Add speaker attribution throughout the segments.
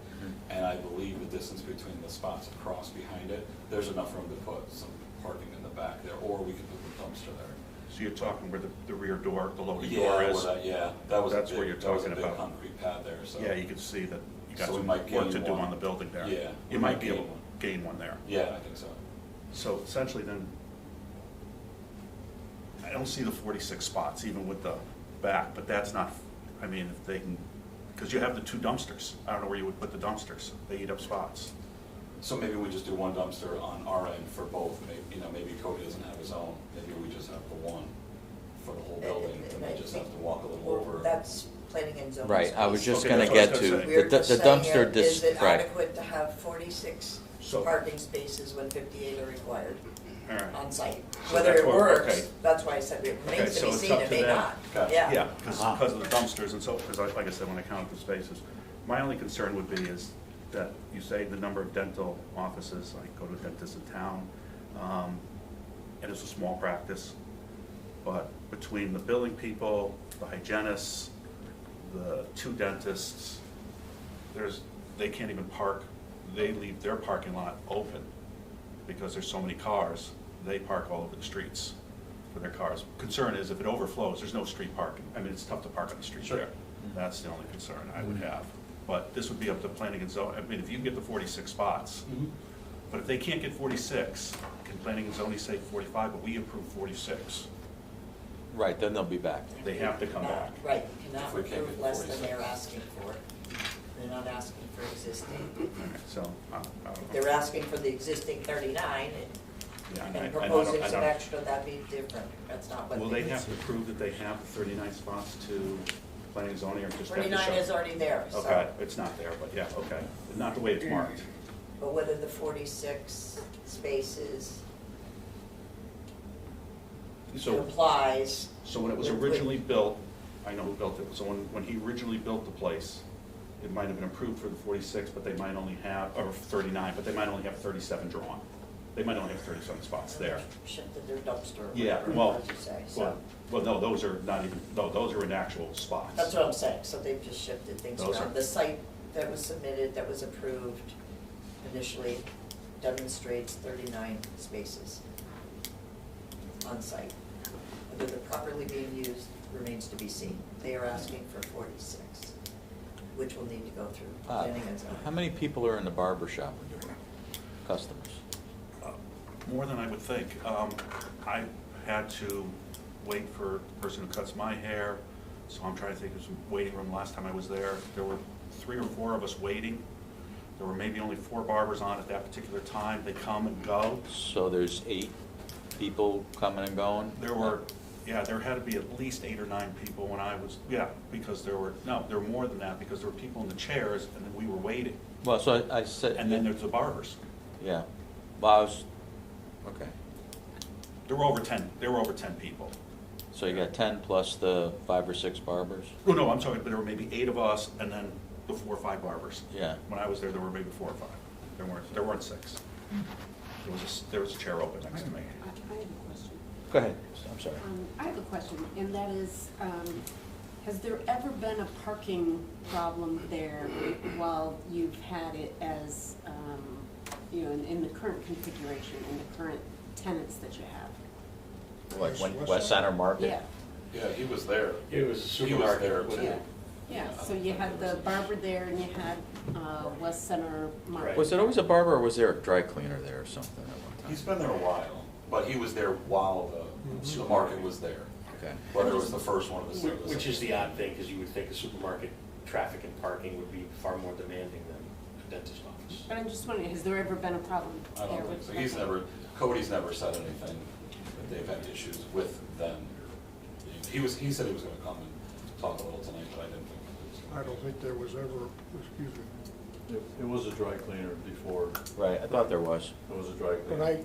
Speaker 1: Mm-hmm.
Speaker 2: I believe the distance between the spots across behind it, there's enough room to put some parking in the back there, or we could put the dumpster there.
Speaker 1: So you're talking where the, the rear door, the loading
Speaker 2: Yeah,
Speaker 1: door
Speaker 2: where
Speaker 1: is?
Speaker 2: that- Yeah, that was a
Speaker 1: That's what you're
Speaker 2: big, that was a
Speaker 1: talking
Speaker 2: big
Speaker 1: about.
Speaker 2: concrete pad there, so.
Speaker 1: Yeah, you can see that you got
Speaker 2: So we
Speaker 1: some
Speaker 2: might
Speaker 1: work to
Speaker 2: gain
Speaker 1: do
Speaker 2: one.
Speaker 1: on the building there.
Speaker 2: Yeah, we
Speaker 1: You
Speaker 2: might
Speaker 1: might be
Speaker 2: gain
Speaker 1: able to
Speaker 2: one.
Speaker 1: gain one there.
Speaker 2: Yeah, I think so.
Speaker 1: So essentially then, I don't see the forty-six spots even with the back, but that's not, I mean, if they can, because you have the two dumpsters. I don't know where you would put the dumpsters. They eat up spots.
Speaker 2: So maybe we just do one dumpster on our end for both, maybe, you know, maybe Cody doesn't have his own, maybe we just have the one for the whole building, and they just have to walk a little over.
Speaker 3: That's planning and zoning.
Speaker 4: Right, I was just
Speaker 1: Okay,
Speaker 4: gonna
Speaker 1: that's what I
Speaker 4: get
Speaker 1: was
Speaker 4: to,
Speaker 1: gonna
Speaker 4: the
Speaker 3: We're
Speaker 4: the
Speaker 3: just
Speaker 4: the
Speaker 3: saying,
Speaker 4: dumpster,
Speaker 3: here, is
Speaker 4: dis-
Speaker 3: it
Speaker 4: right,
Speaker 3: adequate to have forty-six
Speaker 1: So-
Speaker 3: parking spaces when fifty-eight are required
Speaker 1: All right.
Speaker 3: on site?
Speaker 1: So
Speaker 3: Whether
Speaker 1: that's
Speaker 3: it
Speaker 1: what- okay.
Speaker 3: works, that's why I said it
Speaker 1: Okay,
Speaker 3: remains to
Speaker 1: so
Speaker 3: be
Speaker 1: it's
Speaker 3: seen,
Speaker 1: up
Speaker 3: it
Speaker 1: to
Speaker 3: may
Speaker 1: them.
Speaker 3: not,
Speaker 2: Gotcha.
Speaker 3: yeah.
Speaker 1: Yeah, because,
Speaker 4: Ah.
Speaker 1: because of the dumpsters and so, because like like I said, when I counted the spaces, my only concern would be is that you say the number of dental offices, I go to dentists in town, um, and it's a small practice, but between the billing people, the hygienists, the two dentists, there's, they can't even park, they leave their parking lot open because there's so many cars, they park all over the streets for their cars. Concern is if it overflows, there's no street parking. I mean, it's tough to park on the street
Speaker 2: Sure.
Speaker 1: there. That's the only concern I would have. But this would be up to planning and zoning, I mean, if you can get the forty-six spots,
Speaker 2: Mhm.
Speaker 1: but if they can't get forty-six, can planning and zoning say forty-five, but we approve forty-six?
Speaker 4: right, then they'll be back.
Speaker 1: They have to come back.
Speaker 3: Right, you
Speaker 2: If
Speaker 3: cannot
Speaker 2: we can't
Speaker 3: approve
Speaker 2: get
Speaker 3: less than they're
Speaker 2: 46.
Speaker 3: asking for. They're not asking for existing,
Speaker 1: So, I I don't know.
Speaker 3: they're asking for the existing thirty-nine
Speaker 1: Yeah,
Speaker 3: and,
Speaker 1: I- I
Speaker 3: and
Speaker 1: don't- I
Speaker 3: proposing some
Speaker 1: don't-
Speaker 3: extra, that'd be different, that's not what.
Speaker 1: Will they have to prove that they have thirty-nine spots to planning and zoning or just have to show?
Speaker 3: Thirty-nine is already there, so.
Speaker 1: Okay, it's not there, but yeah, okay, not the way it's marked.
Speaker 3: But whether the forty-six spaces
Speaker 1: So,
Speaker 3: applies.
Speaker 1: so when it was
Speaker 3: with-
Speaker 1: originally built, I know who built it, so when, when he originally built the place, it might have been approved for the forty-six, but they might only have, or thirty-nine, but they might only have thirty-seven drawn. They might only have thirty-seven spots there.
Speaker 3: Shifted their dumpster. or
Speaker 1: Yeah,
Speaker 3: whatever,
Speaker 1: well,
Speaker 3: as you say, so.
Speaker 1: well, well, no, those are not even, no, those are in actual spots.
Speaker 3: That's what I'm saying, so they've just shifted things
Speaker 1: Those
Speaker 3: around.
Speaker 1: are-
Speaker 3: The site that was submitted, that was approved initially demonstrates thirty-nine spaces on site. Whether they're properly being used remains to be seen. They are asking for forty-six, which will need to go through
Speaker 4: Uh,
Speaker 3: planning and zoning.
Speaker 4: How many people are in the barber shop when you're customers?
Speaker 1: uh, More than I would think. Um, I had to wait for a person who cuts my hair, so I'm trying to think, it was a waiting room last time I was there. There were three or four of us waiting. There were maybe only four barbers on at that particular time. They come and go.
Speaker 4: So there's eight people coming and going?
Speaker 1: There were, yeah, there had to be at least eight or nine people when I was, yeah, because there were, no, there were more than that, because there were people in the chairs, and then we were waiting.
Speaker 4: Well, so I I said.
Speaker 1: And then there's the barbers.
Speaker 4: Yeah, well, I was, okay,
Speaker 1: There were over ten, there were over ten people.
Speaker 4: so you got ten plus the five or six barbers?
Speaker 1: Oh, no, I'm sorry, but there were maybe eight of us and then the four or five barbers.
Speaker 4: Yeah.
Speaker 1: When I was there, there were maybe four or five. There weren't, there weren't six. There was a, s- there was a chair open next to me.
Speaker 5: I I have a question.
Speaker 4: Go ahead, I'm sorry.
Speaker 5: Um, I have a question, and that is, um, has there ever been a parking problem there while you've had it as, um, you know, in- in the current configuration, in the current tenants that you have?
Speaker 4: Like when- West Center Market?
Speaker 5: Yeah,
Speaker 2: Yeah, he was there.
Speaker 6: It was a
Speaker 2: He was there
Speaker 6: supermarket. wasn't
Speaker 5: yeah,
Speaker 2: too.
Speaker 6: it?
Speaker 5: yeah, so you had the barber there and you had uh, West Center Market.
Speaker 4: Was it always a barber or was there a dry cleaner there or something at one time?
Speaker 2: He's been there a while, but he was there while
Speaker 6: Mm-hmm.
Speaker 2: the, the market was there,
Speaker 4: Okay,
Speaker 2: whether it was the first one or the
Speaker 6: Wh-
Speaker 2: second.
Speaker 6: Which is the odd thing, because you would think a supermarket, traffic and parking would be far more demanding than a dentist office.
Speaker 5: But I'm just wondering, has there ever been a problem
Speaker 2: I
Speaker 5: there?
Speaker 2: don't think
Speaker 5: with-
Speaker 2: so. He's
Speaker 5: okay.
Speaker 2: never, Cody's never said anything that they've had issues with them. He was, he said he was gonna come and talk a little tonight, but I didn't think. he was
Speaker 7: I
Speaker 2: gonna.
Speaker 7: don't think there was ever, excuse me,
Speaker 8: It it was a dry cleaner before,
Speaker 4: right, I thought there was.
Speaker 8: it was a dry
Speaker 7: but
Speaker 8: cleaner.
Speaker 7: I,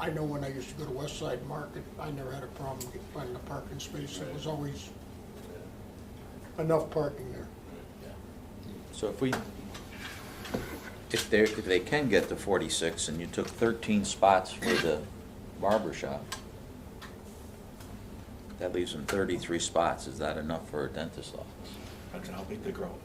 Speaker 7: I know when I used to go to West Side Market, I never had a problem with finding a parking space. There was always enough parking there.
Speaker 4: So if we, if they, if they can get to forty-six and you took thirteen spots for the barber shop, that leaves them thirty-three spots, is that enough for a dentist office?
Speaker 1: That's how big they grow.